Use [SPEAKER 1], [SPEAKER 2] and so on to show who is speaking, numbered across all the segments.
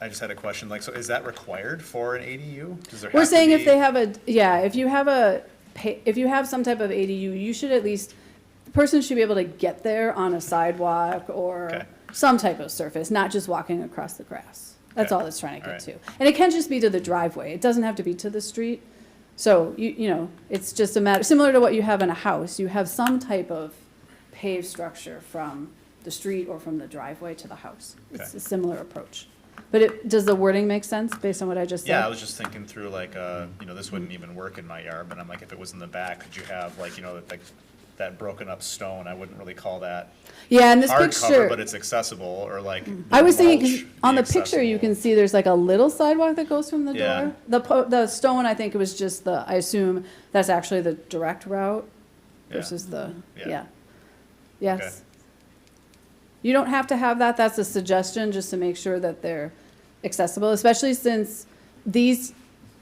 [SPEAKER 1] I just had a question, like, so is that required for an ADU? Does there
[SPEAKER 2] We're
[SPEAKER 1] have to
[SPEAKER 2] saying if
[SPEAKER 1] be-
[SPEAKER 2] they have a, yeah, if you have a, pa- if you have some type of ADU, you should at least, the person should be able to get there on a sidewalk
[SPEAKER 1] Okay.
[SPEAKER 2] or some type of surface, not just walking across the grass. That's
[SPEAKER 1] Okay.
[SPEAKER 2] all it's trying to get to.
[SPEAKER 1] Alright.
[SPEAKER 2] And it can just be to the driveway. It doesn't have to be to the street. So you, you know, it's just a matter, similar to what you have in a house, you have some type of paved structure from the street or from the driveway to the house. It's
[SPEAKER 1] Okay.
[SPEAKER 2] a similar approach. But it, does the wording make sense based on what I just said?
[SPEAKER 1] Yeah, I was just thinking through like, uh, you know, this wouldn't even work in my yard, but I'm like, if it was in the back, could you have like, you know, that, like, that broken up stone, I wouldn't really call that
[SPEAKER 2] Yeah, in this
[SPEAKER 1] hard cover, but
[SPEAKER 2] picture, Mm-hmm.
[SPEAKER 1] it's accessible, or like.
[SPEAKER 2] I was thinking,
[SPEAKER 1] mulch
[SPEAKER 2] 'cause
[SPEAKER 1] be
[SPEAKER 2] on the picture, you can
[SPEAKER 1] accessible.
[SPEAKER 2] see there's like a little sidewalk that goes from the
[SPEAKER 1] Yeah.
[SPEAKER 2] door. The, po- the stone, I think it was just the, I assume, that's actually the direct route
[SPEAKER 1] Yeah.
[SPEAKER 2] versus the,
[SPEAKER 1] Yeah.
[SPEAKER 2] yeah. Yes. You don't have to have that, that's a suggestion, just to make sure that they're accessible, especially since these,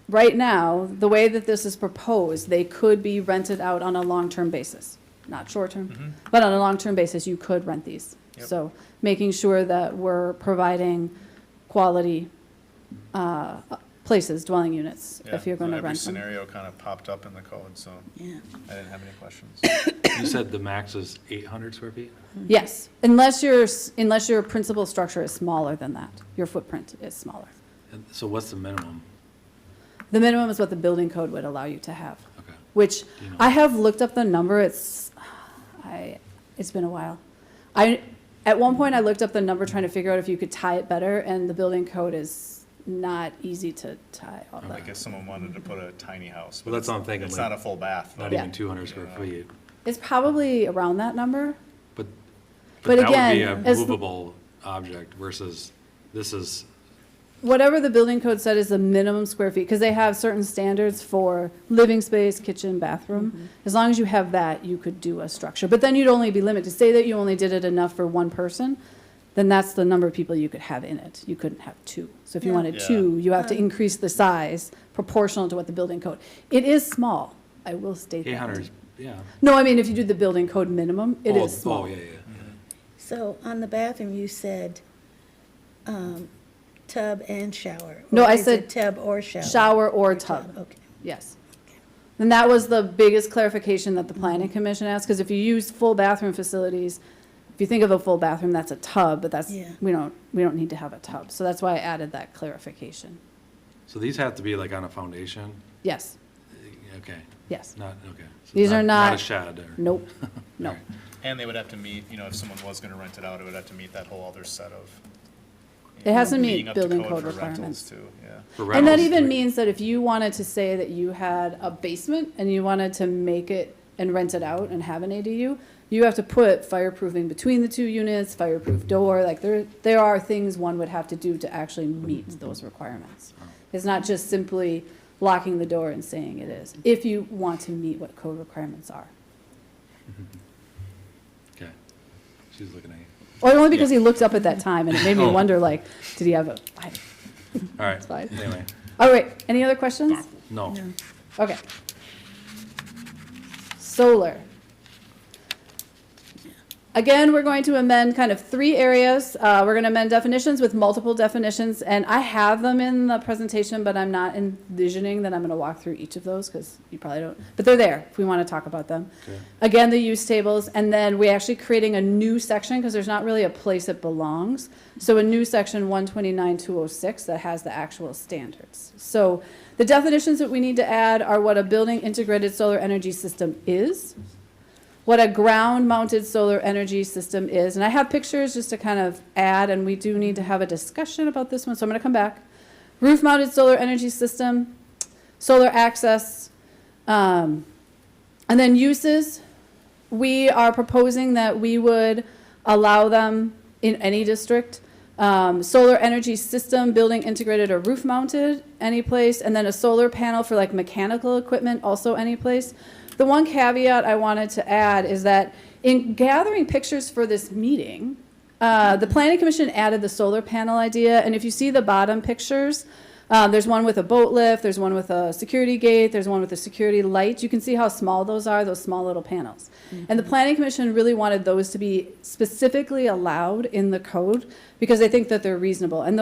[SPEAKER 2] right now, the way that this is proposed, they could be rented out on a long-term basis. Not
[SPEAKER 1] Mm-hmm.
[SPEAKER 2] short-term, but on a long-term basis, you could rent these.
[SPEAKER 1] Yep.
[SPEAKER 2] So making sure that we're providing quality uh, places, dwelling units,
[SPEAKER 1] Yeah,
[SPEAKER 2] if you're
[SPEAKER 1] so
[SPEAKER 2] going to
[SPEAKER 1] Every
[SPEAKER 2] rent them.
[SPEAKER 1] scenario kind of popped up in the code, so
[SPEAKER 2] Yeah.
[SPEAKER 1] I didn't have any questions.
[SPEAKER 3] You said the max is 800 square feet?
[SPEAKER 2] Mm-hmm. Yes, unless your, s- unless your principal structure is smaller than that, your footprint is smaller.
[SPEAKER 3] And So what's the minimum?
[SPEAKER 2] The minimum is what the building code would allow you to have,
[SPEAKER 3] Okay.
[SPEAKER 2] which
[SPEAKER 3] You know.
[SPEAKER 2] I have looked up the number, it's, I, it's been a while. I, at one point, I looked up the number trying to figure out if you could tie it better, and the building code is not easy to tie all
[SPEAKER 1] Like
[SPEAKER 2] that.
[SPEAKER 1] if someone wanted to put a tiny house. but
[SPEAKER 3] Well,
[SPEAKER 1] it's-
[SPEAKER 3] that's what I'm thinking,
[SPEAKER 1] It's
[SPEAKER 3] like-
[SPEAKER 1] not a full bath.
[SPEAKER 3] Not
[SPEAKER 1] though.
[SPEAKER 2] Yeah.
[SPEAKER 3] even 200 square feet,
[SPEAKER 2] It's probably around that number,
[SPEAKER 3] but,
[SPEAKER 2] But
[SPEAKER 3] but that
[SPEAKER 2] again,
[SPEAKER 3] would be a
[SPEAKER 2] as-
[SPEAKER 3] movable object versus this is,
[SPEAKER 2] whatever the building code said is the minimum square feet, because they have certain standards for living space, kitchen, bathroom. As long as you have that, you could do a structure, but then you'd only be limited, say that you only did it enough for one person, then that's the number of people you could have in it, you couldn't have two. So if you
[SPEAKER 4] Yeah.
[SPEAKER 2] wanted
[SPEAKER 1] Yeah.
[SPEAKER 2] two, you have to increase the size proportional to what the building code. It is small, I will state that.
[SPEAKER 3] 800, is- yeah.
[SPEAKER 2] No, I mean, if you do the building code minimum, it
[SPEAKER 3] Oh,
[SPEAKER 2] is small.
[SPEAKER 3] Oh, yeah, yeah.
[SPEAKER 4] So on the bathroom, you said um, tub and shower.
[SPEAKER 2] No,
[SPEAKER 4] Or
[SPEAKER 2] I
[SPEAKER 4] is it
[SPEAKER 2] said
[SPEAKER 4] Tub or shower?
[SPEAKER 2] Shower or
[SPEAKER 4] Tub,
[SPEAKER 2] tub.
[SPEAKER 4] okay.
[SPEAKER 2] Yes. And that was the biggest clarification that the planning commission asked, because if you use full bathroom facilities, if you think of a full bathroom, that's a tub, but that's,
[SPEAKER 4] Yeah.
[SPEAKER 2] we don't, we don't need to have a tub. So that's why I added that clarification.
[SPEAKER 3] So these have to be like on a foundation?
[SPEAKER 2] Yes,
[SPEAKER 3] Okay,
[SPEAKER 2] yes.
[SPEAKER 3] not, okay. So
[SPEAKER 2] These are
[SPEAKER 3] Not
[SPEAKER 2] not-
[SPEAKER 3] a shed or?
[SPEAKER 2] Nope, no.
[SPEAKER 3] Alright.
[SPEAKER 1] And they would have to meet, you know, if someone was gonna rent it out, it would have to meet that whole other set of. you
[SPEAKER 2] It
[SPEAKER 1] know,
[SPEAKER 2] has to meet
[SPEAKER 1] meeting up to
[SPEAKER 2] building code
[SPEAKER 1] for rentals
[SPEAKER 2] requirements.
[SPEAKER 1] Too, yeah.
[SPEAKER 3] For
[SPEAKER 2] And that
[SPEAKER 3] rentals,
[SPEAKER 2] even
[SPEAKER 3] like-
[SPEAKER 2] means that if you wanted to say that you had a basement and you wanted to make it and rent it out and have an ADU, you have to put fireproofing between the two units, fireproof door, like there, there are things one would have to do to actually meet those requirements. It's not just simply locking the door and saying it is, if you want to meet what code requirements are.
[SPEAKER 3] Okay. She's looking at you.
[SPEAKER 2] Or only because he looked up at that time and it made me
[SPEAKER 3] Oh.
[SPEAKER 2] wonder like, did he have a, I-
[SPEAKER 3] All
[SPEAKER 2] it's fine.
[SPEAKER 3] right, anyway,
[SPEAKER 2] All right, any other questions?
[SPEAKER 3] no.
[SPEAKER 4] No.
[SPEAKER 2] Okay. Solar. Again, we're going to amend kind of three areas. Uh, we're going to amend definitions with multiple definitions, and I have them in the presentation, but I'm not envisioning that I'm going to walk through each of those because you probably don't, but they're there if we want to talk about them.
[SPEAKER 3] Okay.
[SPEAKER 2] Again, the use tables, and then we're actually creating a new section because there's not really a place it belongs. So a new section one twenty-nine two oh six that has the actual standards. So the definitions that we need to add are what a building integrated solar energy system is, what a ground-mounted solar energy system is, and I have pictures just to kind of add, and we do need to have a discussion about this one, so I'm gonna come back. Roof-mounted solar energy system, solar access, um, and then uses, we are proposing that we would allow them in any district. Um, solar energy system, building integrated or roof mounted, any place, and then a solar panel for like mechanical equipment, also any place. The one caveat I wanted to add is that in gathering pictures for this meeting, uh, the planning commission added the solar panel idea, and if you see the bottom pictures, uh, there's one with a boat lift, there's one with a security gate, there's one with a security light. You can see how small those are, those small little panels. And the planning commission really wanted those to be specifically allowed in the code because they think that they're reasonable. And